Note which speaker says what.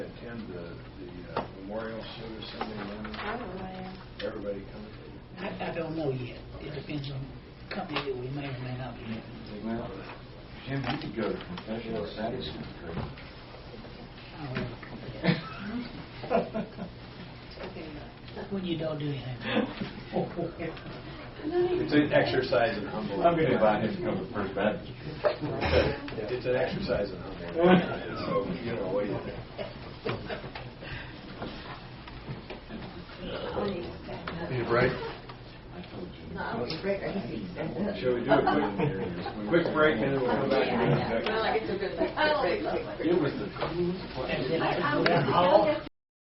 Speaker 1: attend the the uh, memorial service Sunday morning?
Speaker 2: I don't know.
Speaker 1: Everybody coming?
Speaker 3: I, I don't know yet. It depends on the company that we may or may not be in.
Speaker 4: Well, Jim, you could go to confession on Saturday. It's
Speaker 3: I don't know.
Speaker 2: Okay.
Speaker 3: When you don't do anything.
Speaker 1: It's an exercise in
Speaker 4: great.
Speaker 1: humbling.
Speaker 4: I'm gonna invite him to come to First Baptist.
Speaker 1: It's an exercise in humbling. So, you know, what do you think?
Speaker 5: Need a break?
Speaker 4: I told you.
Speaker 6: No, it's great. I think it's-
Speaker 1: Shall we do a quick, quick break and then we'll come back? and do
Speaker 6: Yeah, I know.
Speaker 1: executive?
Speaker 6: Well, I guess we're good.
Speaker 4: It was the coolest place.
Speaker 3: And then I can go down the hall.